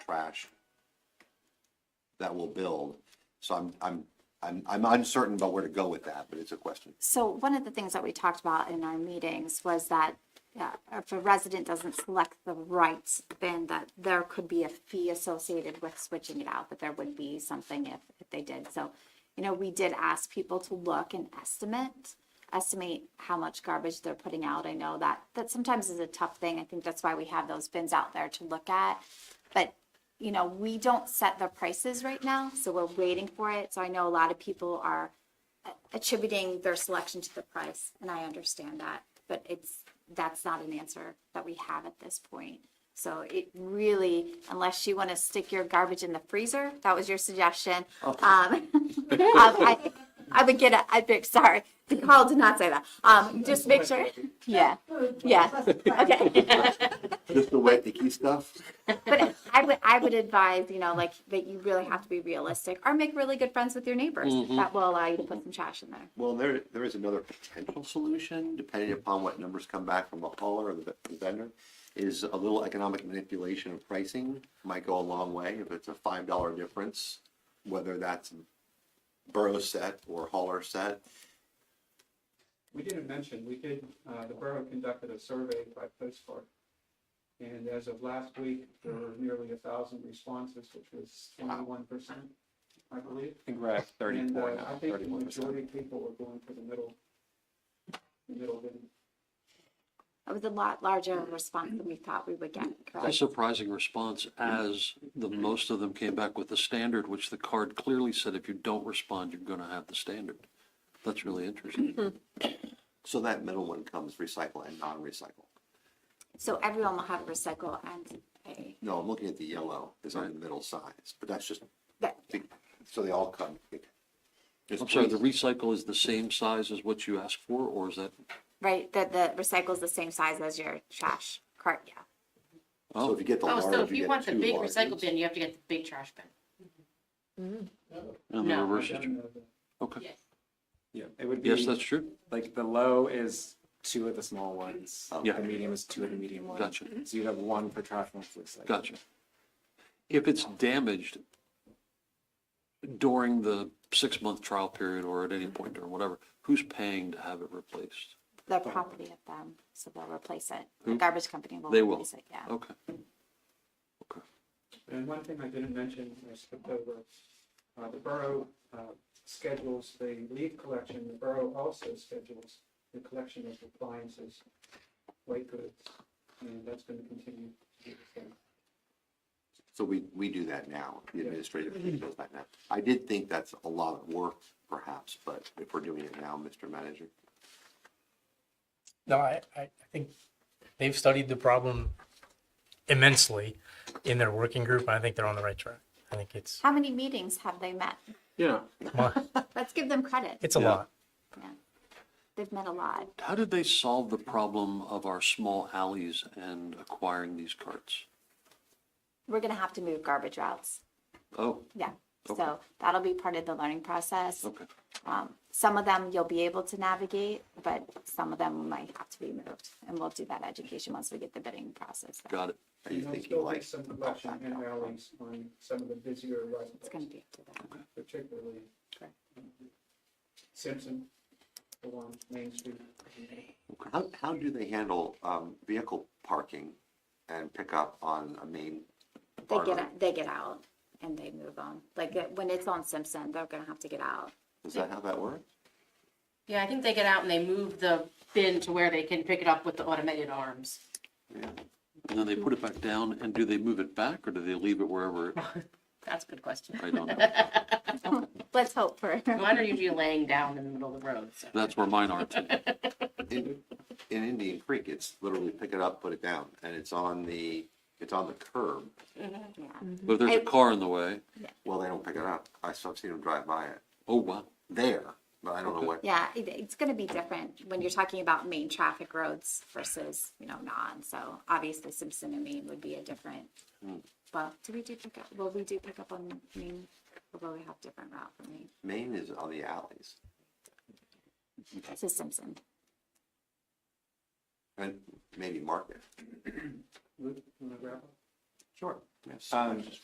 trash that will build. So I'm, I'm, I'm, I'm uncertain about where to go with that, but it's a question. So one of the things that we talked about in our meetings was that uh, if a resident doesn't select the rights, then that there could be a fee associated with switching it out, but there would be something if, if they did. So, you know, we did ask people to look and estimate, estimate how much garbage they're putting out. I know that, that sometimes is a tough thing. I think that's why we have those bins out there to look at. But you know, we don't set the prices right now, so we're waiting for it. So I know a lot of people are attributing their selection to the price, and I understand that, but it's, that's not an answer that we have at this point. So it really, unless you want to stick your garbage in the freezer, that was your suggestion. Um, I, I would get a, I'd be, sorry, Carl did not say that. Um, just make sure, yeah, yeah, okay. Just the wet icky stuff? But I would, I would advise, you know, like that you really have to be realistic or make really good friends with your neighbors. That will allow you to put some trash in there. Well, there, there is another potential solution, depending upon what numbers come back from the hauler or the the vendor, is a little economic manipulation of pricing might go a long way. If it's a five dollar difference, whether that's borough set or hauler set, We didn't mention, we did, uh, the borough conducted a survey by postcard. And as of last week, there were nearly a thousand responses, which was twenty-one percent, I believe. I think we're at And, thirty-four uh, I now, think the thirty-one percent. majority of people were going for the middle, the middle bin. It was a lot larger Mm-hmm. response than we thought we would get, A correct? surprising response as the most of them came back with the standard, which the card clearly said if you don't respond, you're gonna have the standard. That's really interesting. so that middle one comes recycle and non-recycle. So everyone will have recycle and a, No, I'm looking at the yellow, is on the middle size, but that's just, that, so they all come. I'm sorry, the recycle is the same size as what you asked for, or is that? right, that the recycle is the same size as your trash cart, yeah. So if you get the Oh, large, so if you you get want the two big recycle larges. bin, you have to get the big trash bin. and the No. reverse is I true? don't know uh, the- Okay, Yes. Yeah, it would yes, that's be, true. like, the low is two of the small ones. Yeah. The medium is two of the medium ones. Mm-hmm. Gotcha. So you'd have one for trash, one for recycle. Gotcha. If it's damaged during the six-month trial period or at any point or whatever, who's paying to have it replaced? The property of them, so they'll replace it. The Who? garbage company will Mm-hmm. They will. replace it, yeah. Okay. And one thing I didn't mention, I skipped over, uh, the borough, uh, schedules the leaf collection, the borough also schedules the collection of appliances, white goods, and that's gonna continue. to be the same. So we, we do that now, the administrative team does that now. I did think that's a lot of work perhaps, but if we're doing it now, Mr. Manager, No, I, I I think they've studied the problem immensely in their working group, and I think they're on the right track. I think it's, How many meetings have they met? Yeah. Let's give them credit. it's a lot. They've met a lot. How did they solve the problem of our small alleys and acquiring these carts? We're gonna have to move garbage routes, Oh, yeah. Okay. So that'll be part of the learning process. okay. Um, some of them you'll be able to navigate, but some of them might have to be moved. And we'll do that education once we get the bidding process. Got it. are you And there'll thinking still be like? Some collection in alleys on some of the busier It's gonna roads, be up to them. particularly uh, Correct. Simpson, along Main Street. How, how do they handle, um, vehicle parking and pickup on a main? They artery? get, they get out and they move on. Like uh, when it's on Simpson, they're gonna have to get out. Is that how that works? Yeah, I think they get out and they move the bin to where they can pick it up with the automated arms. Yeah. And then they put it back down, and do they move it back, or do they leave it wherever? it- That's a good question. I don't know. Let's hope for. Mine are usually laying down in the middle of the road, so. That's where mine are too. In, in Indian Creek, it's literally pick it up, put it down, and it's on the, it's on the curb. Yeah. But if there's a car in the way, Well, they don't pick it up. I, I've seen them drive by it oh, wow. there, but I don't know what. Yeah, it, it's gonna be different when you're talking about main traffic roads versus, you know, non. So obviously Simpson and Main would be a different. Well, do we do pick up, well, we do pick up on Main, although we have different route from Main Maine is on the alleys. to Simpson. And maybe market. Luke, you wanna wrap up? Sure. Yes. Um,